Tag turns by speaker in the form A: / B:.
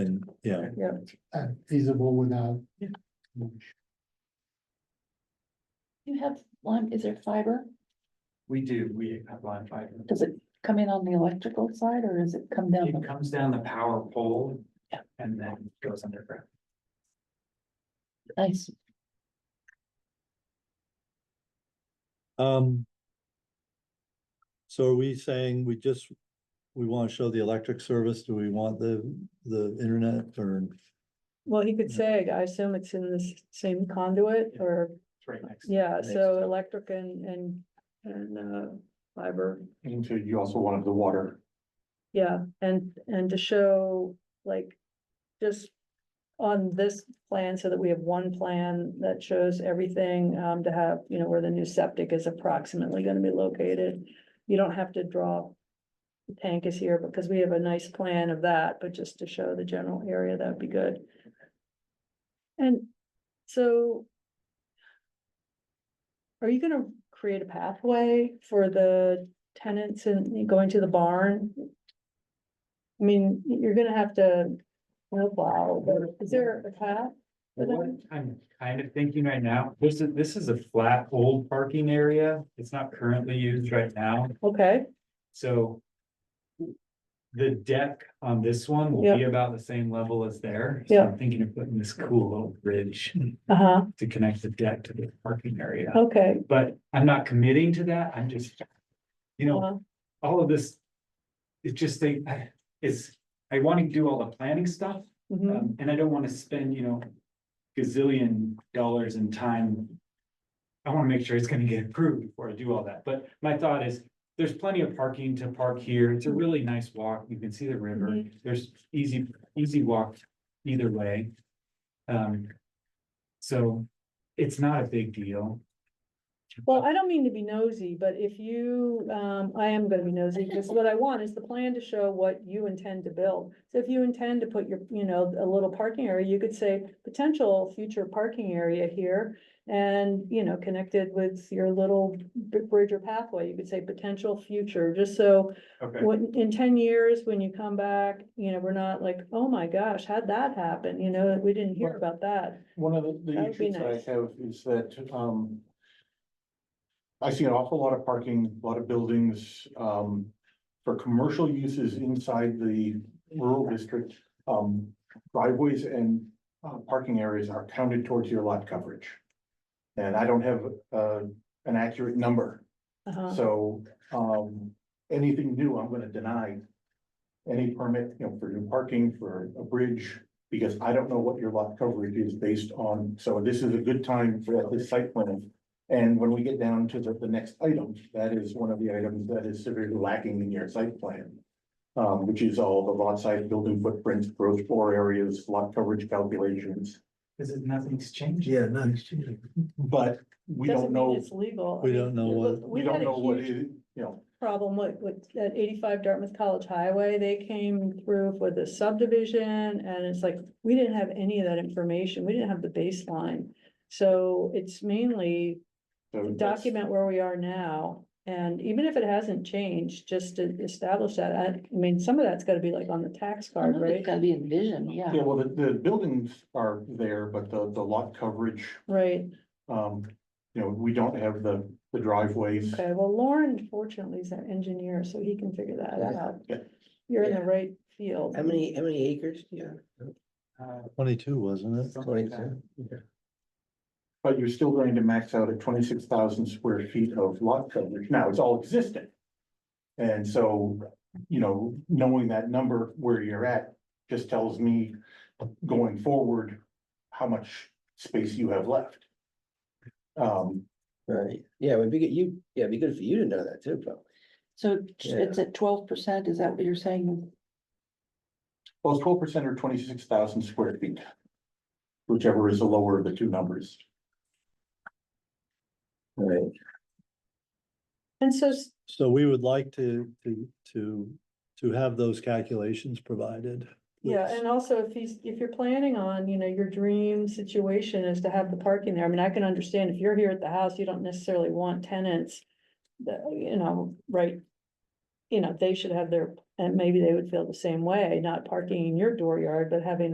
A: yeah,
B: uh, feasible without.
C: Yeah. You have lime, is there fiber?
D: We do, we have line fiber.
C: Does it come in on the electrical side or does it come down?
D: It
C: the-
D: comes down the power pole.
C: Yeah.
D: And then goes underground.
C: Nice.
A: um. So are we saying we just, we want to show the electric service, do we want the, the internet or?
E: Well, he could say, I assume it's in this same conduit
D: Yeah.
E: or,
D: It's right next.
E: yeah,
A: Next.
E: so electric and, and, and, uh, fiber.
D: And so you also wanted the water.
E: Yeah, and, and to show like, just on this plan so that we have one plan that shows everything, um, to have, you know, where the new septic is approximately gonna be located. You don't have to draw the tank is here because we have a nice plan of that, but just to show the general area, that'd be good. And so are you gonna create a pathway for the tenants and going to the barn? I mean, you're gonna have to, wow, but is there a path? for
D: What
E: them?
D: I'm kind of thinking right now, this is, this is a flat old parking area. It's not currently used right now,
E: Okay,
D: so. The deck on this one will be about the same level as there. So I'm Thinking of putting this cool little bridge
E: uh-huh,
D: to connect the deck to the parking area.
E: okay.
D: But I'm not committing to that. I'm just, you know,
E: uh-huh.
D: all of this. It's just they, I- it's, I want to do all the planning stuff,
E: mhm.
D: um, and I don't want to spend, you know. Gazillion dollars in time. I want to make sure it's gonna get approved before I do all that, but my thought is, there's plenty of parking to park here. It's a really nice walk. You can see the river. There's easy, easy walk either way. Um. So it's not a big deal.
E: Well, I don't mean to be nosy, but if you, um, I am gonna be nosy, because what I want is the plan to show what you intend to build. So if you intend to put your, you know, a little parking area, you could say potential future parking area here. And, you know, connected with your little br- bridge or pathway, you could say potential future, just so
D: Okay.
E: when, in ten years, when you come back, you know, we're not like, oh my gosh, how'd that happen? You know, we didn't hear
B: Right.
E: about that.
B: One of the,
E: That
B: the
E: would be
B: issues that
E: nice.
B: I have is that, um. I see an awful lot of parking, a lot of buildings, um, for commercial uses inside the rural district. Um, driveways and, uh, parking areas are counted towards your lot coverage. And I don't have, uh, an accurate number,
E: Uh-huh.
B: so, um, anything new, I'm gonna deny. Any permit, you know, for new parking, for a bridge, because I don't know what your lot coverage is based on, so this is a good time for this site plan. And when we get down to the, the next item, that is one of the items that is severely lacking in your site plan. Um, which is all the lot size, building footprints, gross floor areas, lot coverage calculations,
D: Because nothing's changed.
A: nice, we
B: but we
E: Doesn't
B: don't
E: mean
B: know,
E: it's legal. I mean,
A: don't know what,
E: look,
B: we
E: had
B: don't
E: a
B: know what
E: huge
B: is, you know.
E: problem with, with that eighty-five Dartmouth College Highway, they came through for the subdivision, and it's like, we didn't have any of that information, we didn't have the baseline. So it's mainly
B: so that's-
E: document where we are now, and even if it hasn't changed, just to establish that, I, I mean, some of that's gotta be like on the tax card, right?
C: It's gotta be envisioned,
B: Yeah, well, the, the buildings are there, but the, the lot coverage,
E: Right,
B: um, you know, we don't have the, the driveways.
E: okay, well, Lauren fortunately is an engineer, so he can figure that out.
B: Yeah.
E: You're in the right field.
F: How many, how many acres do you
D: Uh,
A: twenty-two, wasn't it?
F: have?
D: something like that.
F: Twenty-two.
B: But you're still going to max out at twenty-six thousand square feet of lot coverage. Now, it's all existing. And so, you know, knowing that number where you're at just tells me going forward, how much space you have left. Um,
F: Right, yeah, it would be good, you, yeah, it'd be good for you to know that too, probably.
C: So it's at twelve percent, is that what you're saying?
B: well, twelve percent or twenty-six thousand square feet. Whichever is the lower of the two numbers.
F: Right,
E: And so s-
A: So we would like to, to, to, to have those calculations provided.
E: Yeah, and also if he's, if you're planning on, you know, your dream situation is to have the parking there, I mean, I can understand if you're here at the house, you don't necessarily want tenants. That, you know, right? You know, they should have their, and maybe they would feel the same way, not parking in your dooryard, but having